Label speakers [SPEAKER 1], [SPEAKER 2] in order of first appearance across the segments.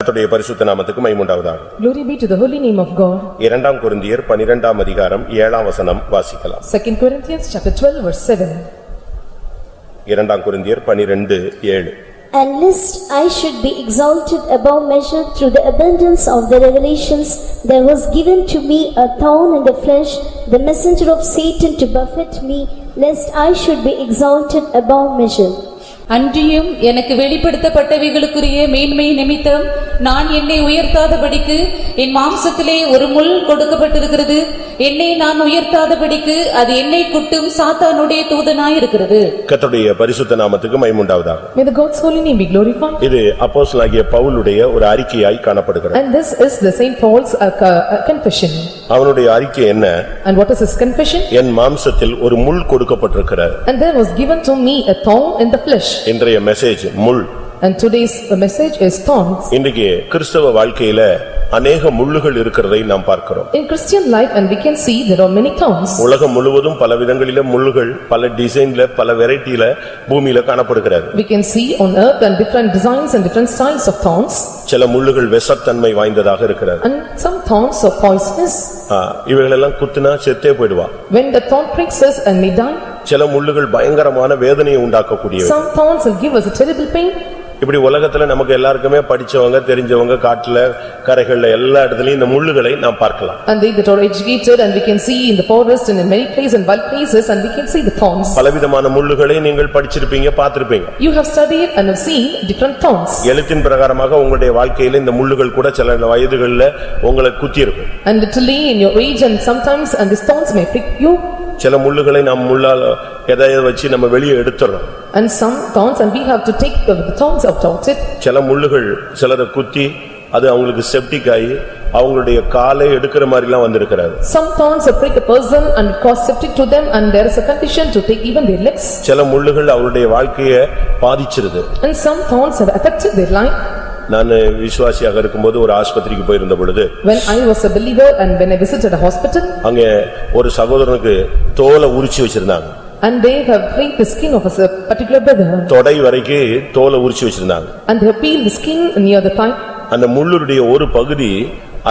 [SPEAKER 1] கர்த்தருடைய பரிசுத்த நாமத்துக்கு மைமுண்டாவதாக
[SPEAKER 2] Glory be to the holy name of God.
[SPEAKER 1] இரண்டாம் கொரிந்தியர் பனிரெண்டாம் அதிகாரம் ஏழாம் வசனம் வாசிக்கலாம்
[SPEAKER 2] 2 Corinthians chapter 12 verse 7.
[SPEAKER 1] இரண்டாம் கொரிந்தியர் பனிரெண்டு ஏழு
[SPEAKER 3] And lest I should be exalted above measure through the abundance of the revelations, there was given to me a thorn in the flesh, the messenger of Satan to buffet me, lest I should be exalted above measure.
[SPEAKER 4] அன்றியும் எனக்கு வெளிப்படுத்தப்பட்டவைகளுக்குரிய மேன்மை நிமித்தம் நான் என்னை உயர்த்தாதபடிக்கு என் மாம்சத்திலே ஒரு முள் கொடுக்கப்பட்டிருக்கிறது என்னை நான் உயர்த்தாதபடிக்கு அது என்னை குட்டும் சாத்தானுடைய தூதனாயிருக்கிறது
[SPEAKER 1] கர்த்தருடைய பரிசுத்த நாமத்துக்கு மைமுண்டாவதாக
[SPEAKER 2] May the God's holy name be glorified.
[SPEAKER 1] இது அப்போஸ்தலனாகிய பவுலுடைய ஒரு அறிக்கையாய் காணப்படுகிறது
[SPEAKER 2] And this is the Saint Paul's uh, co- uh, confession.
[SPEAKER 1] அவனுடைய அறிக்கை என்ன
[SPEAKER 2] And what is his confession?
[SPEAKER 1] என் மாம்சத்தில் ஒரு முள் கொடுக்கப்பட்டிருக்கிறது
[SPEAKER 2] And there was given to me a thorn in the flesh.
[SPEAKER 1] இன்றைய மெசேஜ் முள்
[SPEAKER 2] And today's uh, message is thorns.
[SPEAKER 1] இன்றைக்கு கிறிஸ்தவ வாழ்க்கையில அநேக முள்ளுகள் இருக்கிறதை நாம் பார்க்கிறோம்
[SPEAKER 2] In Christian life and we can see there are many thorns.
[SPEAKER 1] உலகம் முழுவதும் பல விதங்களில முள்ளுகள் பல டிசைன்ல பல வெரைட்டில பூமியில காணப்படுகிறது
[SPEAKER 2] We can see on earth and different designs and different styles of thorns.
[SPEAKER 1] சில முள்ளுகள் விஷத்தன்மை வாய்ந்ததாக இருக்கிறது
[SPEAKER 2] And some thorns are poisonous.
[SPEAKER 1] ஆ, இவைகளெல்லாம் குத்துனா செத்தே போயிடுவா
[SPEAKER 2] When the thorn pricks us and we die,
[SPEAKER 1] சில முள்ளுகள் பயங்கரமான வேதனையை உண்டாக்கக்கூடியவை
[SPEAKER 2] some thorns will give us a terrible pain.
[SPEAKER 1] இப்படி உலகத்துல நமக்கு எல்லாருக்குமே படிச்சவங்க தெரிஞ்சவங்க காட்டுல கரைகள்ல எல்லா இடத்துலயும் இந்த முள்ளுகளை நாம் பார்க்கலாம்
[SPEAKER 2] And they that are educated and we can see in the forest and in many places and wild places and we can see the thorns.
[SPEAKER 1] பலவிதமான முள்ளுகளை நீங்கள் படிச்சிருப்பீங்க பார்த்திருப்பீங்க
[SPEAKER 2] You have studied and have seen different thorns.
[SPEAKER 1] எழுத்தின் பிரகாரமாக உங்களுடைய வாழ்க்கையில இந்த முள்ளுகள் கூட சில வயதுகள்ல உங்களை குத்தியிருக்கும்
[SPEAKER 2] And literally in your age and sometimes and these thorns may prick you
[SPEAKER 1] சில முள்ளுகளை நாம் முள்ளால எதையோ வச்சு நம்ம வெளியே எடுத்துறோம்
[SPEAKER 2] and some thorns and we have to take the the thorns out of it.
[SPEAKER 1] சில முள்ளுகள் சிலரை குத்தி அது அவங்களுக்கு செப்டிக் ஆகி அவங்களுடைய காலை எடுக்கிற மாதிரிலாம் வந்திருக்கிறாரு
[SPEAKER 2] Some thorns will prick a person and cause septic to them and there is a condition to take even their legs.
[SPEAKER 1] சில முள்ளுகள் அவருடைய வாழ்க்கையை பாதிச்சிருது
[SPEAKER 2] And some thorns have affected their life.
[SPEAKER 1] நான் விசுவாசியாக இருக்கும்போது ஒரு ஆஸ்பத்திரிக்கு போயிருந்த பொழுது
[SPEAKER 2] When I was a believer and when I visited a hospital
[SPEAKER 1] அங்க ஒரு சகோதரனுக்கு தோலை உரிச்சு வச்சிருந்தாங்க
[SPEAKER 2] and they have pricked the skin of a s- particular brother
[SPEAKER 1] தொடை வரைக்கும் தோலை உரிச்சு வச்சிருந்தாங்க
[SPEAKER 2] and they have peeled the skin near the thigh.
[SPEAKER 1] அந்த முள்ளுடைய ஒரு பகுதி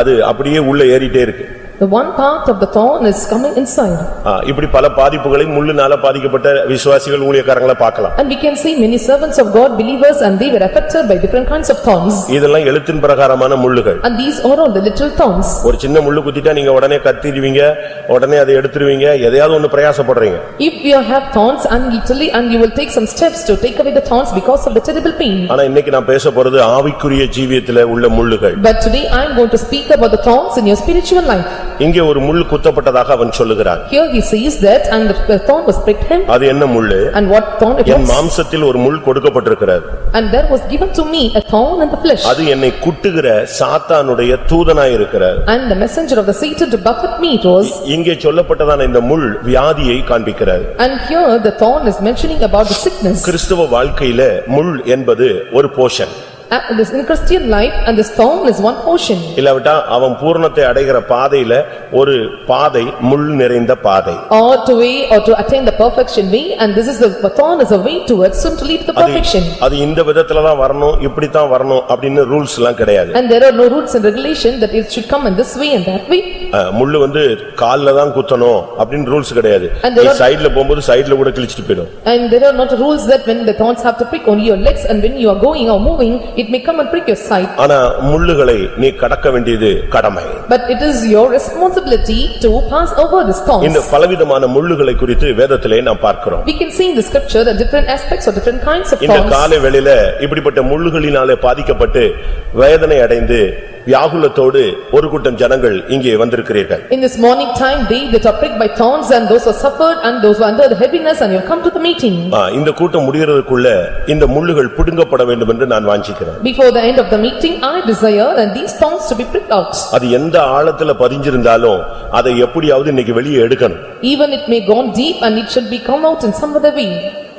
[SPEAKER 1] அது அப்படியே உள்ள ஏறிட்டே இருக்கு
[SPEAKER 2] The one part of the thorn is coming inside
[SPEAKER 1] ஆ, இப்படி பல பாதிப்புகளை முள்ளுனால பாதிக்கப்பட்ட விசுவாசிகள் ஊழியக்காரங்களை பார்க்கலாம்
[SPEAKER 2] and we can see many servants of God believers and they were affected by different kinds of thorns
[SPEAKER 1] இதெல்லாம் எழுத்தின் பிரகாரமான முள்ளுகள்
[SPEAKER 2] and these are all the literal thorns.
[SPEAKER 1] ஒரு சின்ன முள்ளு குத்திட்டா நீங்க உடனே கத்திடுவீங்க உடனே அதை எடுத்துருவீங்க எதையாவது ஒண்ணு பிரயாசப்படுறீங்க
[SPEAKER 2] If you have thorns and literally and you will take some steps to take away the thorns because of the terrible pain.
[SPEAKER 1] ஆனா இன்னைக்கு நான் பேச போறது ஆவிக்குரிய ஜீவியத்துல உள்ள முள்ளுகள்
[SPEAKER 2] But today I am going to speak about the thorns in your spiritual life.
[SPEAKER 1] இங்கே ஒரு முள் குத்தப்பட்டதாக அவன் சொல்லுகிறான்
[SPEAKER 2] Here he says that and the thorn was pricked him
[SPEAKER 1] அது என்ன முள்ளு
[SPEAKER 2] and what thorn it
[SPEAKER 1] N
[SPEAKER 2] was.
[SPEAKER 1] மாம்சத்தில் ஒரு முள் கொடுக்கப்பட்டிருக்கிறது
[SPEAKER 2] And there was given to me a thorn in the flesh
[SPEAKER 1] அது என்னை குட்டுகிற சாத்தானுடைய தூதனாயிருக்கிறார்
[SPEAKER 2] and the messenger of the Satan to buffet me it was.
[SPEAKER 1] இங்கே சொல்லப்பட்டதான இந்த முள் வியாதியை காண்பிக்கிறார்
[SPEAKER 2] And here the thorn is mentioning about the sickness.
[SPEAKER 1] கிறிஸ்துவ வாழ்க்கையில முள் என்பது ஒரு Poshan
[SPEAKER 2] And this in Christian life and this thorn is one portion
[SPEAKER 1] இல்லாவிட்டா அவன் பூரணத்தை அடைகிற பாதையில ஒரு பாதை முள் நிறைந்த பாதை
[SPEAKER 2] or to way or to attain the perfection way and this is the thorn is a way towards soon to lead to the
[SPEAKER 1] அது-
[SPEAKER 2] perfection
[SPEAKER 1] அது இந்த விதத்துல தான் வரணும் இப்படித்தான் வரணும் அப்படின்னு ரூல்ஸ் எல்லாம் கிடையாது
[SPEAKER 2] and there are no rules and regulation that it should come in this way and that way
[SPEAKER 1] அஹ், முள்ளு வந்து கால்ல தான் குத்தணும் அப்படின்னு ரூல்ஸ் கிடையாது
[SPEAKER 2] And there
[SPEAKER 1] நீ
[SPEAKER 2] are-
[SPEAKER 1] சைடுல போகும்போது சைடுல கூட கிழிச்சிட்டு போயிடும்
[SPEAKER 2] and there are not rules that when the thorns have to prick only your legs and when you are going or moving it may come and prick your side
[SPEAKER 1] ஆனா முள்ளுகளை நீ கடக்க வேண்டியது கடமை
[SPEAKER 2] but it is your responsibility to pass over these
[SPEAKER 1] இந்த
[SPEAKER 2] thorns
[SPEAKER 1] பலவிதமான முள்ளுகளை குறித்து வேதத்திலே நாம் பார்க்கிறோம்
[SPEAKER 2] we can see in the scripture the different aspects or different kinds of
[SPEAKER 1] இந்த
[SPEAKER 2] thorns
[SPEAKER 1] காலை வேளையில இப்படிப்பட்ட முள்ளுகளினாலே பாதிக்கப்பட்டு வேதனை அடைந்து வியாகுலத்தோடு ஒரு கூட்டம் ஜனங்கள் இங்கே வந்திருக்கிறீர்கள்
[SPEAKER 2] In this morning time, they that are pricked by thorns and those who are suffered and those who are under the heaviness and you have come to the meeting.
[SPEAKER 1] ஆ, இந்த கூட்டம் முடிகிறதுக்குள்ள இந்த முள்ளுகள் புடுங்கப்பட வேண்டும் என்று நான் வாஞ்சிக்கிறேன்
[SPEAKER 2] Before the end of the meeting, I desire and these thorns to be pricked out.
[SPEAKER 1] அது எந்த ஆழத்துல பதிஞ்சிருந்தாலும் அதை எப்படியாவது இன்னைக்கு வெளியே எடுக்கணும்
[SPEAKER 2] Even it may gone deep and it should be come out in some other way.